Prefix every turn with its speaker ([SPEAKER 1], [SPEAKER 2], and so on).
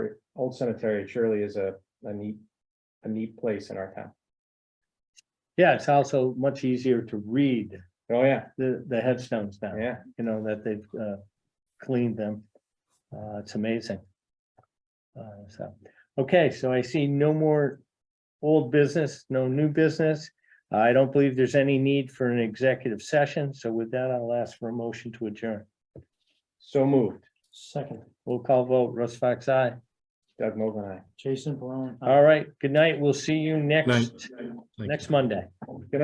[SPEAKER 1] old cemetery surely is a, a neat, a neat place in our town.
[SPEAKER 2] Yeah, it's also much easier to read
[SPEAKER 1] Oh, yeah,
[SPEAKER 2] the, the headstones now,
[SPEAKER 1] yeah,
[SPEAKER 2] you know, that they've, uh, cleaned them. Uh, it's amazing. Uh, so, okay, so I see no more old business, no new business. I don't believe there's any need for an executive session, so with that, I'll ask for a motion to adjourn.
[SPEAKER 1] so moved,
[SPEAKER 3] Second,
[SPEAKER 2] We'll call vote, Russ Fox, aye.
[SPEAKER 1] Doug Mogul and I.
[SPEAKER 3] Jason Perron.
[SPEAKER 2] All right, good night. We'll see you next,
[SPEAKER 4] Thank you.
[SPEAKER 2] next Monday.